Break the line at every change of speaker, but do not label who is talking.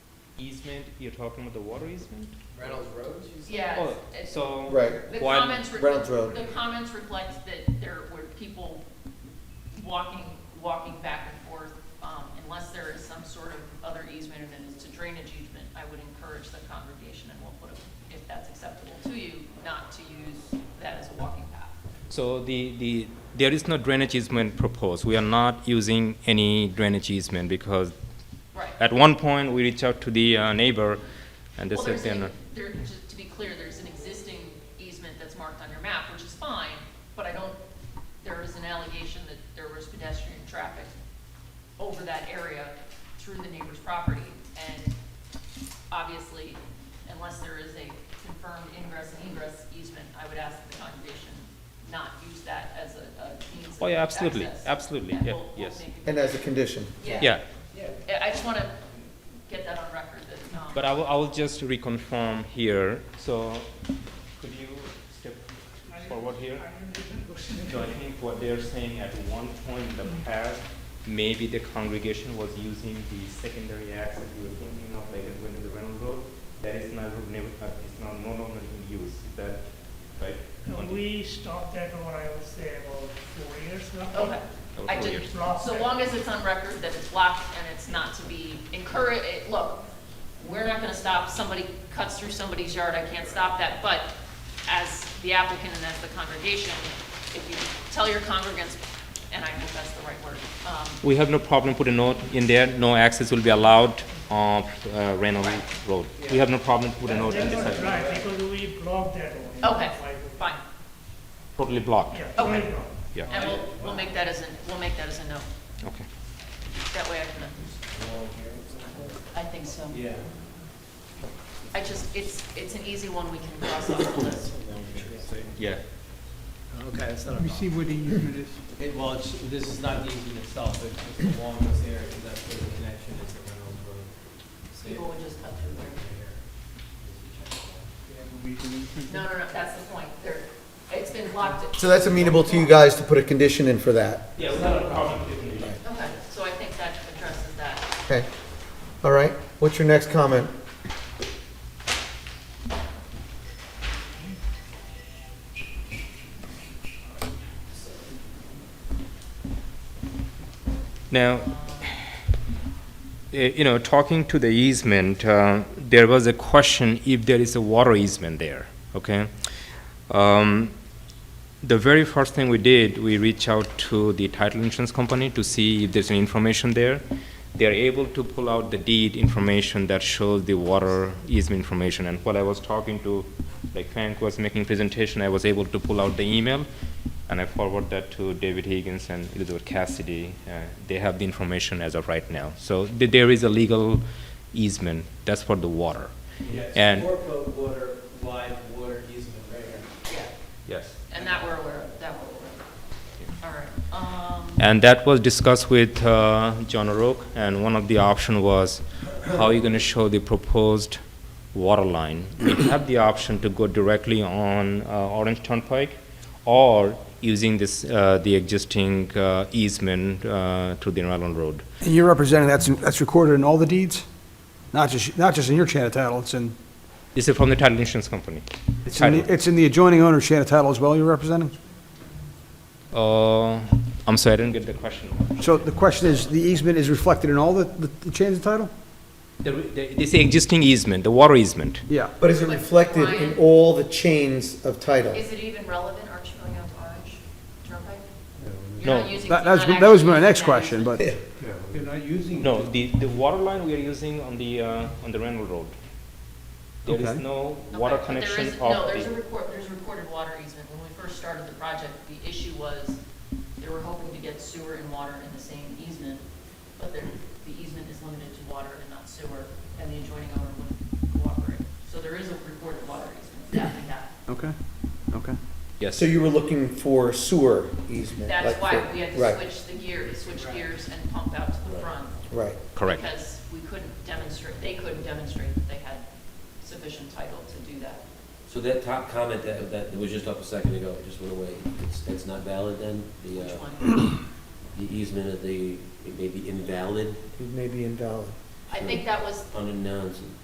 easement, you're talking about the water easement?
Reynolds Road, you said?
Yeah,
Oh,
it's- it's-
so.
Right.
the
why-
comments, re-
Reynolds Road.
the comments reflect that there were people walking, walking back and forth. Um, Unless there is some sort of other easement and it is to drainage easement, I would encourage the congregation and we'll put a, if that's acceptable to you, not to use that as a walking path.
So the, the, there is no drainage easement proposed. We are not using any drainage easement because
Right.
at one point we reached out to the uh, neighbor and they
Well,
said
there's
they're
an-
not.
There, just to be clear, there's an existing easement that's marked on your map, which is fine, but I don't, there is an allegation that there was pedestrian traffic over that area through the neighbor's property, and obviously, unless there is a confirmed ingress and egress easement, I would ask the congregation not use that as a, a means of
Oh, yeah, absolutely,
access.
absolutely,
And
yeah,
we'll- we'll
yes.
make it-
And as a condition.
Yeah,
Yeah.
I I just want to get that on record that, um.
but I will, I will just reconfirm here. So could you step forward here? So I think what they're saying at one point in the
Mm-hmm.
past, maybe the congregation was using the secondary access you were thinking of, like it went to the Reynolds Road. That is now, never, uh, it's now no longer in use. Is that right?
No,
On the-
we stopped that over, I would say, about four years ago.
Okay.
Oh,
I
four
did,
years.
so long as it's on record that it's blocked and it's not to be encouraged, look, we're not gonna stop, somebody cuts through somebody's yard, I can't stop that, but as the applicant and as the congregation, if you tell your congregants, and I hope that's the right word, um,
We have no problem putting note in there, no access will be allowed on uh, Reynolds Road. We have no problem putting note in
That
the
was
site.
right, because we blocked that over.
okay, fine,
Totally blocked,
Yeah,
Okay.
right now.
yeah,
and we'll, we'll make that as a, we'll make that as a note,
okay.
that way I can, I think so.
Yeah.
I just, it's, it's an easy one we can cross off the list.
Yeah,
Okay, that's not a
Let me see
problem.
what the easement is.
It- Well, it's- this is not the easement itself, it's just along this area, because that's where the connection is to Reynolds Road. So
People would just cut through there.
you-
No, no, no, that's the point. There, it's been blocked.
So that's amenable to you guys to put a condition in for that.
yeah, we have no problem putting it.
Okay, so I think that addresses that.
Okay. All right. What's your next comment?
Now, eh, you know, talking to the easement, uh, there was a question if there is a water easement there, okay? Um, The very first thing we did, we reached out to the title insurance company to see if there's any information there. They're able to pull out the deed information that shows the water easement information. And while I was talking to, like Frank was making presentation, I was able to pull out the email and I forward that to David Higgins and Elizabeth Cassidy. Uh, They have the information as of right now. So th- there is a legal easement, that's for the water.
Yeah,
And-
it's four-foot water, wide water easement right here.
Yeah,
Yes.
and that we're aware of, that we're aware of. All right, um,
And that was discussed with uh, John O'Rourke, and one of the option was how are you going to show the proposed water line? We have the option to go directly on uh, Orange Turnpike or using this, uh, the existing uh, easement uh, to the Island Road.
And you're representing, that's, that's recorded in all the deeds? Not just, not just in your chain of title, it's in,
This is from the title insurance company.
it's in, the- it's in the adjoining owner's chain of title as well you're representing?
Uh, I'm sorry, I didn't get the question.
So the question is, the easement is reflected in all the, the the chains of title?
The- the- This existing easement, the water easement.
Yeah.
But is it reflected in all the chains of title?
um, is it even relevant? Aren't you going out to Orange Turnpike? You're
No.
not using-
That,
you're
that's,
not
that was
actually
my next
using that
question,
easement.
but,
You're not using.
No, the, the water line we are using on the, uh, on the Randall Road. There is
Okay.
no water
Okay, but there
connection
is-
of
No, there's a
the,
record, there's a recorded water easement. When we first started the project, the issue was they were hoping to get sewer and water in the same easement, but there, the easement is limited to water and not sewer, and the adjoining owner wouldn't cooperate. So there is a recorded water easement, definitely that.
okay, okay.
yes,
So you were looking for sewer easement?
That's
like
why
for-
we had to
right,
switch the gear, switch gears and pump out to the front.
Right.
correct.
Because we couldn't demonstrate, they couldn't demonstrate that they had sufficient title to do that.
So that top comment that, that was just up a second ago, just went away, it's, that's not valid then? The,
Which
uh,
one?
the easement of the, it may be invalid?
It may be invalid.
I think that was
unknowns and